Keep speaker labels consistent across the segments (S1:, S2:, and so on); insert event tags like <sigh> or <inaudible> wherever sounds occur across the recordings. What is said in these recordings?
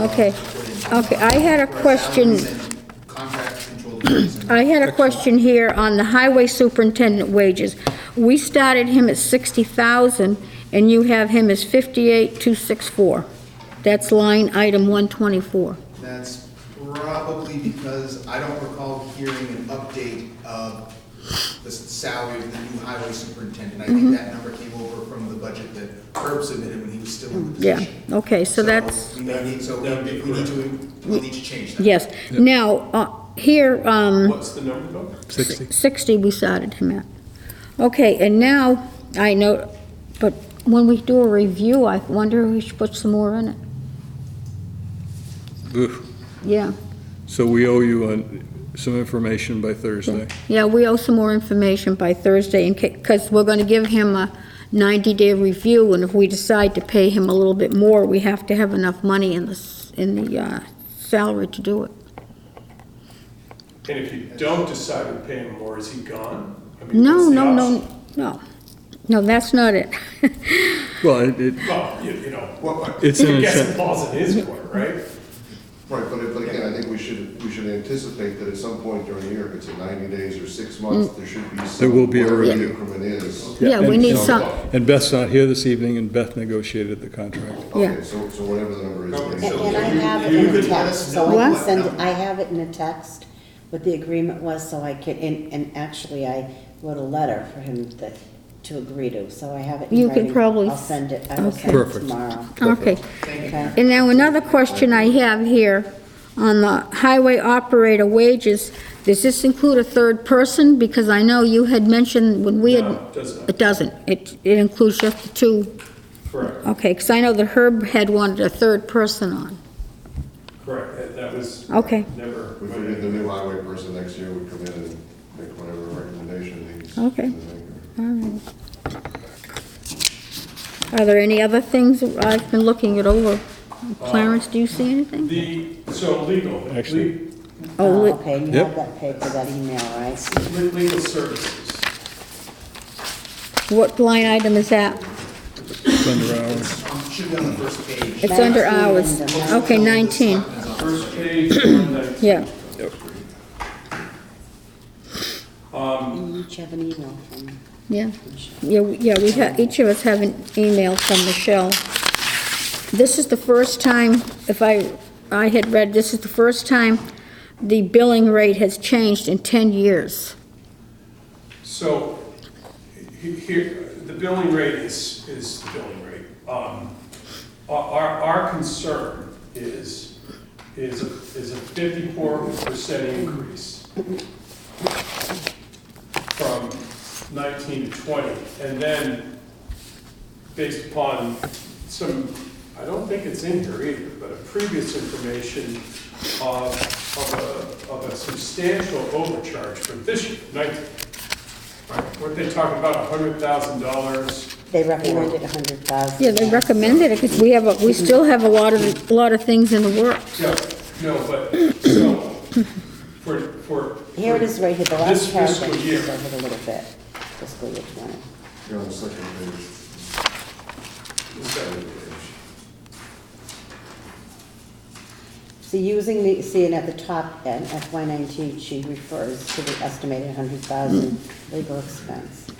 S1: Okay, okay, I had a question,
S2: Contract control fees and
S1: I had a question here on the highway superintendent wages. We started him at 60,000, and you have him as 58,264. That's line item 124.
S2: that's probably because I don't recall hearing an update of the salary of the new highway superintendent. I
S1: Mm-hmm.
S2: think that number came over from the budget that Herb submitted when he was still in the
S1: Yeah,
S2: position.
S1: okay, so that's,
S2: We may need, so we
S3: That'd be
S2: we need to, we'll need to change that.
S1: yes. Now, uh, here, um,
S3: What's the number, though?
S4: 60.
S1: 60 we started him at. Okay, and now, I know, but when we do a review, I wonder if we should put some more in it.
S4: Oof.
S1: Yeah,
S4: So we owe you on- some information by Thursday.
S1: yeah, we owe some more information by Thursday, because we're going to give him a 90-day review, and if we decide to pay him a little bit more, we have to have enough money in the, s- in the uh, salary to do it.
S3: And if you don't decide to pay him more, is he gone? I mean,
S1: No,
S3: what's the
S1: no,
S3: option?
S1: no, no, no, that's not it. <laughs>
S4: Well, it- it,
S3: Well, you, you know,
S5: Well, I-
S4: it's an
S3: I guess it
S4: incentive.
S3: falls in his court, right?
S5: Right, but, but again, I think we should, we should anticipate that at some point during the year, if it's at ninety days or six months, there should be some.
S4: There will be a
S5: whatever the
S4: review.
S5: Increment is.
S1: Mm. Yeah, we
S4: And- uh,
S1: need some,
S4: And Beth's not here this evening, and Beth negotiated the contract.
S1: Yeah.
S5: Okay, so, so whatever the number is. we should-
S6: And I have
S3: You
S6: it in a
S3: could let
S6: text,
S3: us
S6: so
S1: know
S6: I
S1: what
S6: can send, it-
S2: number.
S6: I have it in a text, what the agreement was, so I could, and, and actually, I wrote a letter for him that, to agree to, so I have it in
S1: You
S6: writing.
S1: could probably-
S6: I'll send it, I will
S1: okay.
S6: send it
S4: Perfect.
S6: tomorrow.
S1: okay.
S6: Okay.
S1: And now another question I have here on the highway operator wages, does this include a third person? Because I know you had mentioned when we had.
S3: No, it does not.
S1: It doesn't. It, it includes just the two,
S3: Correct,
S1: okay, because I know that Herb had wanted a third person on.
S3: correct, that, that was.
S1: Okay.
S3: Never.
S5: We figured the new highway person next year would come in and make whatever recommendation he's.
S1: Okay. All right. Are there any other things? I've been looking it over. Clarence, do you see anything?
S3: The, so legal,
S4: Actually-
S3: le-
S1: Oh,
S6: Oh,
S1: it-
S6: okay, you
S4: Yep.
S6: have that paper, that email, right?
S3: le- legal services,
S1: what line item is that?
S4: It's under our-
S2: Um, Should be on the first page.
S1: It's under
S6: 19
S1: hours.
S6: and,
S1: Okay, 19.
S3: first page, one nineteen.
S1: Yeah,
S3: Um,
S6: You each have an email from.
S1: yeah. Yeah, we- yeah, we have, each of us have an email from Michelle. This is the first time, if I, I had read, this is the first time the billing rate has changed in 10 years.
S3: So, he- here, the billing rate is, is the billing rate. Um, Our, our- our concern is, is, is a fifty-four percent increase from nineteen to twenty, and then based upon some, I don't think it's in here either, but a previous information of, of a, of a substantial overcharge for this year, nineteen, weren't they talking about hundred thousand dollars?
S6: They recommended a hundred thousand.
S1: Yeah, they recommended it, because we have, a- we still have a lot of, a lot of things in the works.
S3: No, no, but, so, for, for.
S6: Here it is right here, the last
S3: This
S6: paragraph,
S3: fiscal
S6: goes
S3: year.
S6: over it a little bit, fiscal year twenty.
S5: You're on the second page.
S6: So using the, see, and at the top end, FY nineteen, she refers to the estimated hundred thousand legal expense.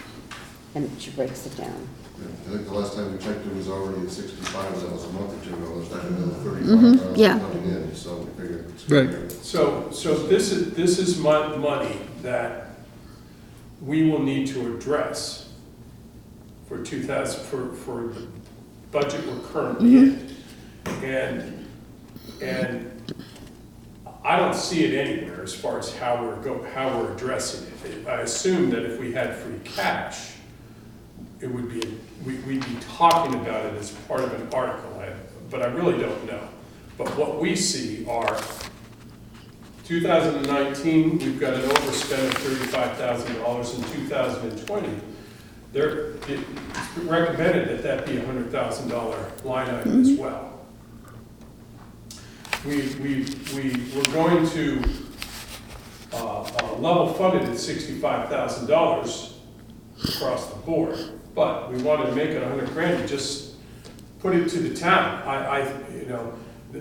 S6: And she breaks it down.
S5: Yeah, I think the last time we checked, it was already at sixty-five, that was a month or two ago, there's not another thirty-five
S1: Mm-hmm. yeah.
S5: thousand coming in, so we figured. it's-
S4: Right.
S3: So, so this is, this is mon- money that we will need to address for two thousand, for, for the budget we're currently in. And, and I don't see it anywhere as far as how we're go, how we're addressing it. I assume that if we had free cash, it would be, we, we'd be talking about it as part of an article, I- but I really don't know. But what we see are 2019, we've got an overspend of $35,000. In 2020, they're, it's recommended that that be a $100,000 line item as well. We, we, we, we're going to, uh, uh, level funded at $65,000 across the board, but we wanted to make it 100 grand, and just put it to the town. I, I, you know,